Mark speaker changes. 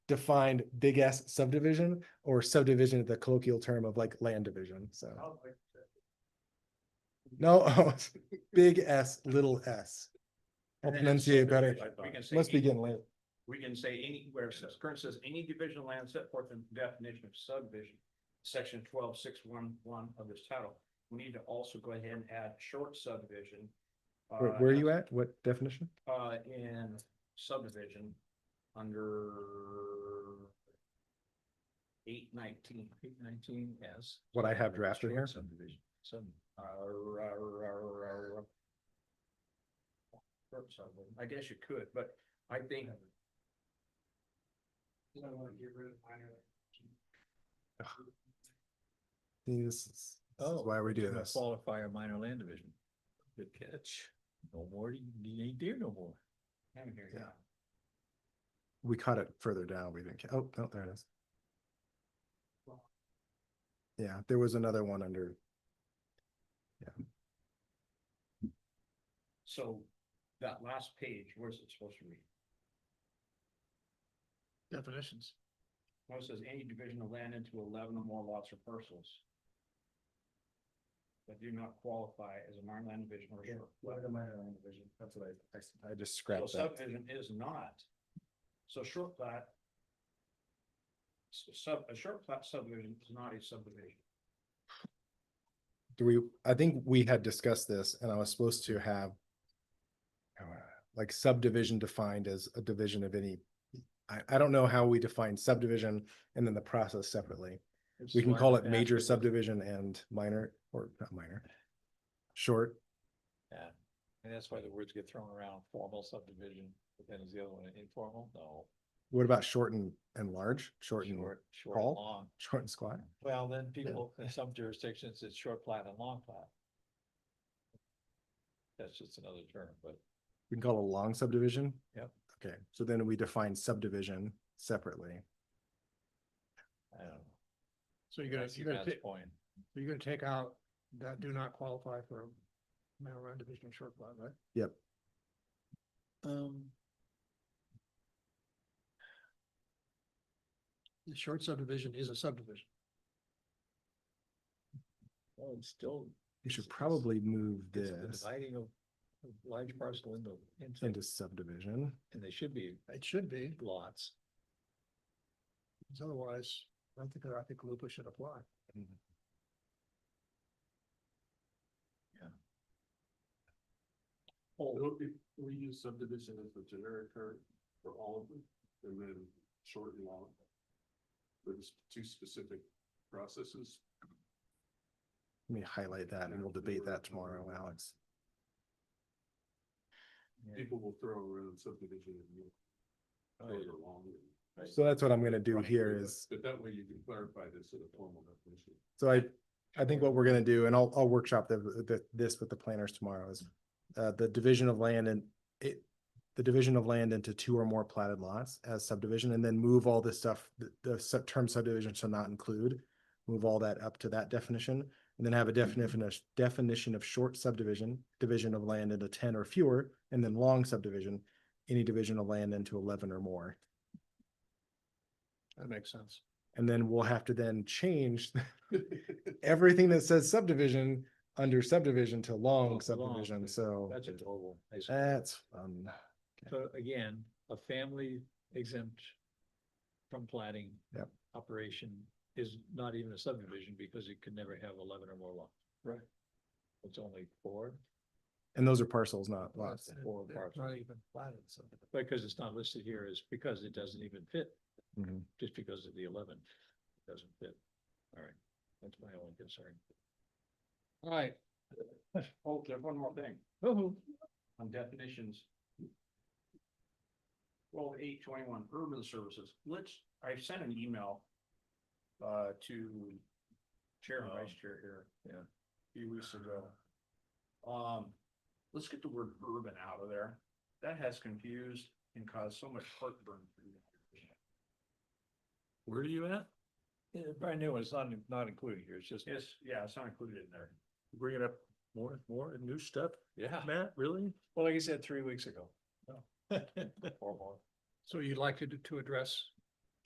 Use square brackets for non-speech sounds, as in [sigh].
Speaker 1: defined big S subdivision or subdivision, the colloquial term of like land division, so. No, [laughs] oh, big S, little s. I'll
Speaker 2: And then it's
Speaker 1: pronunciate better.
Speaker 2: subdivided by- we can say E.
Speaker 1: Let's
Speaker 2: any-
Speaker 1: begin late.
Speaker 2: We can say any, where it says, current says, any division of land set forth in definition of subdivision, section twelve six one one of this title. We need to also go ahead and add short subdivision.
Speaker 1: Where,
Speaker 2: uh,
Speaker 1: where are you at? What definition?
Speaker 2: Uh, in subdivision, under eight nineteen, eight nineteen S.
Speaker 1: What I have drafted here?
Speaker 2: Subdivision, sub, uh, ra- ra- ra- ra- Short subdivision. I guess you could, but I think. I wanna get rid of minor.
Speaker 1: This E is oh. this is why we do this.
Speaker 2: Qualify a minor land division. Good catch. No more, you ain't there no more. Haven't here,
Speaker 1: Yeah. We caught it further down. We didn't, ca- oh, no, there it is. Yeah, there was another one under,
Speaker 2: So that last page, where's it supposed to read? Definitions. Well, it says any division of land into eleven or more lots or parcels. That do not qualify as a minor land division or. short-
Speaker 1: That's what I, I just
Speaker 2: So
Speaker 1: scratched that.
Speaker 2: subdivision is not. So short plat. s- Sub, a short plat subdivision is not a subdivision.
Speaker 1: Do we, I think we had discussed this and I was supposed to have uh, like subdivision defined as a division of any, I, I don't know how we define subdivision and then the process separately. We can call it major subdivision and minor, or not minor, short,
Speaker 3: And that's why the words get thrown around, formal subdivision, but then is the other one informal? No.
Speaker 1: What about short and, and large, short and,
Speaker 3: Short, short,
Speaker 1: crawl?
Speaker 3: long.
Speaker 1: short and squat?
Speaker 3: Well, then people, in some jurisdictions, it's short plat and long plat. That's just another term, but
Speaker 1: We can call it a long subdivision?
Speaker 3: Yep.
Speaker 1: Okay, so then we define subdivision separately.
Speaker 3: I don't know.
Speaker 4: So you're gonna,
Speaker 3: That's
Speaker 4: you're gonna,
Speaker 3: Yvonne's
Speaker 4: ta-
Speaker 3: Point.
Speaker 4: you're gonna take out that do not qualify for marijuana division and short plat, right?
Speaker 1: Yep.
Speaker 4: Um. The short subdivision is a subdivision.
Speaker 3: Well, it's still.
Speaker 1: We
Speaker 3: it's-
Speaker 1: should
Speaker 3: it's-
Speaker 1: probably move
Speaker 3: it's the
Speaker 1: this
Speaker 3: Dividing of of large parcel into,
Speaker 1: into
Speaker 3: into,
Speaker 1: subdivision.
Speaker 3: and they should be
Speaker 4: It should be,
Speaker 3: lots.
Speaker 4: 'cause otherwise, I think, I think Lupa should apply.
Speaker 2: Oh.
Speaker 5: So if we use subdivision as the generic term for all of them, and then short and long. There's two specific processes.
Speaker 1: Let me highlight that and we'll debate that tomorrow, Alex.
Speaker 5: People will throw around subdivision and you
Speaker 3: Oh,
Speaker 5: short
Speaker 3: yeah.
Speaker 5: or long. and-
Speaker 1: So that's what I'm gonna do
Speaker 5: Right.
Speaker 1: here is,
Speaker 5: But that way you can clarify this in a formal definition.
Speaker 1: so I, I think what we're gonna do, and I'll, I'll workshop the, the, this with the planners tomorrow is uh, the division of land and it, the division of land into two or more platted lots as subdivision and then move all this stuff, the, the sub- term subdivision shall not include. Move all that up to that definition and then have a definition, of- definition of short subdivision, division of land into ten or fewer, and then long subdivision, any division of land into eleven or more.
Speaker 4: That makes sense.
Speaker 1: And then we'll have to then change everything that says subdivision under subdivision to
Speaker 3: Oh,
Speaker 1: long
Speaker 3: long,
Speaker 1: subdivision, so
Speaker 3: That's a global. basically.
Speaker 4: Uh,
Speaker 1: that's fun.
Speaker 3: So again, a family exempt from plating.
Speaker 1: Yep.
Speaker 3: Operation is not even a subdivision because it could never have eleven or more lots. Right. It's only four,
Speaker 1: And those are parcels, not
Speaker 4: Well,
Speaker 1: lots.
Speaker 4: it's- it-
Speaker 3: Or
Speaker 4: It's
Speaker 3: parcel.
Speaker 4: not even platted, so.
Speaker 3: because it's not listed here is because it doesn't even fit,
Speaker 1: Mhm.
Speaker 3: just because of the eleven. It Doesn't fit. All right, that's my only concern.
Speaker 4: All right,
Speaker 2: Oh, there's one more thing.
Speaker 3: Oh,
Speaker 2: on definitions. Twelve eight twenty-one, urban services, let's, I sent an email. Uh, to chair
Speaker 5: Um,
Speaker 2: and vice chair here.
Speaker 3: yeah.
Speaker 2: a Few weeks ago.
Speaker 5: uh,
Speaker 2: Um, let's get the word urban out of there, that has confused and caused so much heartburn. for me.
Speaker 3: Where are you at? Yeah, brand new one, it's not, not included here, it's just
Speaker 2: It's, yeah, it's not included in there.
Speaker 5: Bringing up more, more new stuff,
Speaker 3: Yeah,
Speaker 5: Matt, really?
Speaker 3: well, like I said, three weeks ago. Or more.
Speaker 4: so you'd like to, to address